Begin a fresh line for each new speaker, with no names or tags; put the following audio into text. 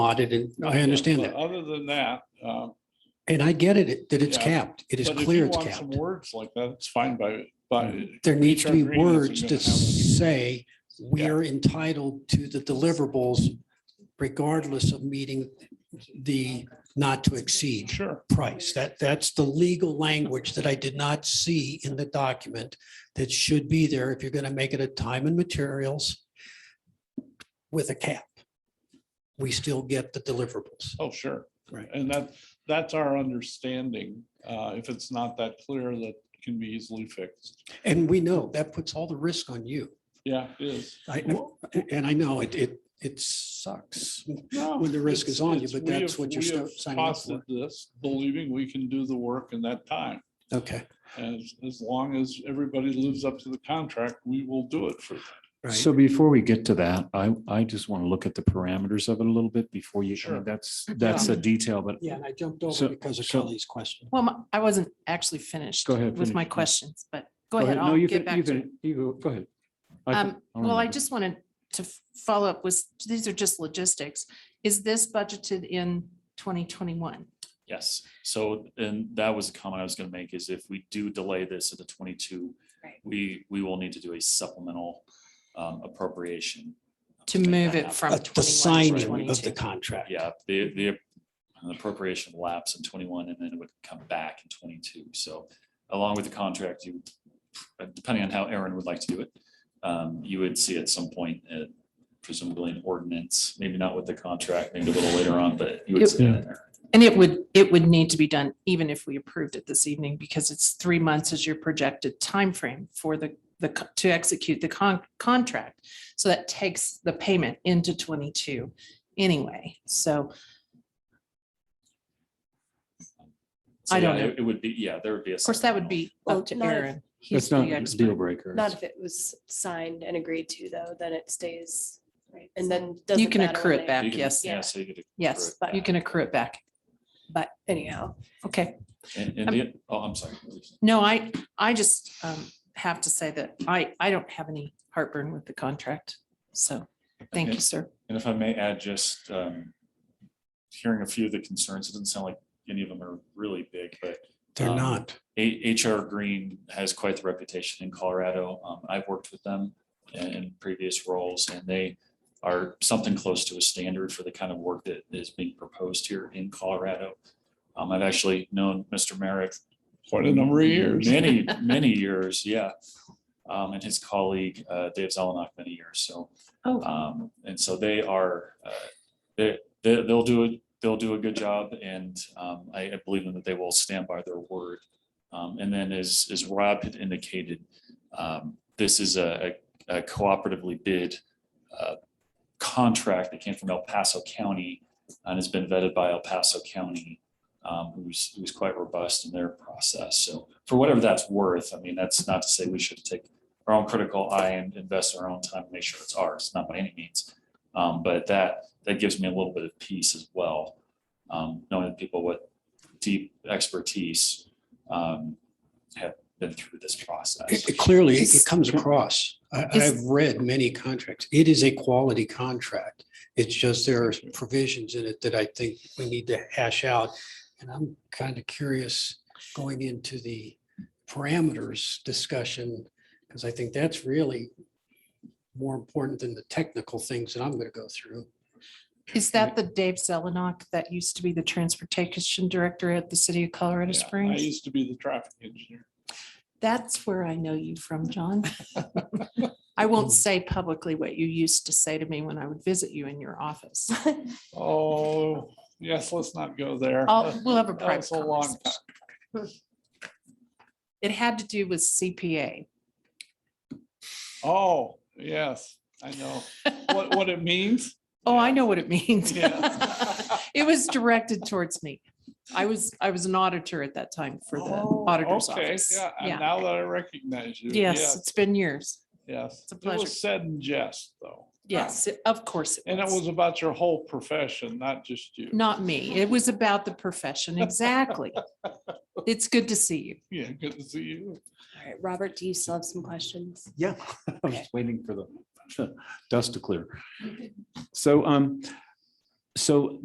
audit and I understand
But
that.
Other than that, uh,
And I get it, that it's
Yeah.
capped. It is
but if
clear
you
it's
want
capped.
some words like that, it's fine by, by.
There needs to be
HR agreements are
words
gonna
to
have-
say we
Yeah.
are entitled to the deliverables regardless of meeting the not to exceed
Sure,
price. That, that's the legal language that I did not see in the document that should be there if you're going to make it a time and materials with a cap. We still get the deliverables.
oh, sure.
Right.
And that, that's our understanding. Uh, if it's not that clear, that can be easily fixed.
And we know that puts all the risk on you.
Yeah, it is.
I, and I know it, it, it sucks.
No,
when the risk is
it's-
on you,
it's-
but
we
that's
have-
what you're
we
sta-
have
signing up for.
costed This, believing we can do the work in that time.
Okay.
As, as long as everybody lives up to the contract, we will do it for them.
Right.
So before we get to that, I, I just want to look at the parameters of it a little bit before you, I mean,
Sure.
that's, that's a detail, but
Yeah, and I jumped
So-
over because of
so-
Kelly's question.
Well, my- I wasn't actually finished.
Go ahead,
With my
finish, yeah.
questions, but go
Go
ahead.
No,
I'll
you
get
can, you
back to it.
can, you go, go ahead. I can-
Um, Well, I
remember.
just wanted to f- follow up with, these are just logistics. Is this budgeted in 2021?
Yes, so, and that was a comment I was gonna make, is if we do delay this to the twenty-two,
Right.
we, we will need to do a supplemental um, appropriation.
To
make
move
that
it
happen.
from
Uh,
21
The
to
signing of the
22.
contract.
Yeah, the, the appropriation lapse in twenty-one, and then it would come back in twenty-two, so along with the contract, you, depending on how Aaron would like to do it, um, you would see at some point, uh, presumably an ordinance, maybe not with the contract, maybe a little later on, but you would see that in there.
And it would, it would need to be done even if we approved it this evening because it's three months is your projected timeframe for the, the, co- to execute the con- contract. So that takes the payment into 22 anyway. So
So,
I don't
yeah,
know.
It it would be, yeah, there would be a.
of course, that would be up
Well,
to
not if-
Aaron.
That's
He's the
not a
expert.
deal breaker.
Not if it was signed and agreed to, though, then it stays, and then.
You
doesn't
can
matter
accrue
when
it
they-
back,
You can-
yes.
Yeah, so you could.
Yes,
accrue it
you
back.
can accrue it back.
Anyhow,
Okay.
And, and the, oh, I'm sorry. please.
No, I, I just um, have to say that I, I don't have any heartburn with the contract. So thank you,
Okay.
sir.
And if I may add, just um, hearing a few of the concerns, it doesn't sound like any of them are really big, but
They're
Um,
not.
A- HR Green has quite the reputation in Colorado. Um, I've worked with them in, in previous roles and they are something close to a standard for the kind of work that is being proposed here in Colorado. Um, I've actually known Mr. Merrick
Quite a number of years.
Many, many years, yeah. Um, and his colleague, uh, Dave Zelenak, many years, so.
Oh.
Um, and so they are, uh, they, they, they'll do it, they'll do a good job and, um, I, I believe in that they will stand by their word. Um, and then as, as Rob had indicated, um, this is a, a a cooperatively bid, uh, contract that came from El Paso County and has been vetted by El Paso County um, who's, who's quite robust in their process. So for whatever that's worth, I mean, that's not to say we should take our own critical eye and invest our own time, and make sure it's ours, not by any means. Um, but that, that gives me a little bit of peace as well. Um, knowing that people with deep expertise, um, have been through this process.
It- it Clearly, it-
Is-
it comes across. I,
is-
I've read many contracts. It is a quality contract. It's just there are provisions in it that I think we need to hash out. And I'm kind of curious going into the parameters discussion, because I think that's really more important than the technical things that I'm going to go through.
Is that the Dave Zelenok that used to be the transportation director at the city of Colorado
Yeah, I
Springs?
used to be the traffic engineer.
That's where I know you from, John. I won't say publicly what you used to say to me when I would visit you in your office.
Oh, yes, let's not go there.
I'll, we'll have a
That was
private
a long time.
conversation. It had to do with CPA.
Oh, yes, I know. What, what it means?
Oh, I
Yeah.
know what it means.
Yeah.
It was directed towards me. I was, I was an auditor at that time for the
Oh,
auditor's
okay,
office.
Yeah, and
Yeah.
now that I recognize you.
Yes, it's been years.
Yes.
a
It
pleasure.
was said in jest, though.
Yes, it- of course.
And it was about your whole profession, not just you.
Not me. It was about the profession. Exactly. It's good to see you.
Yeah, good to see you.
all right, Robert, do you still have some questions?
Yeah, I was waiting for the dust to clear. So um,
So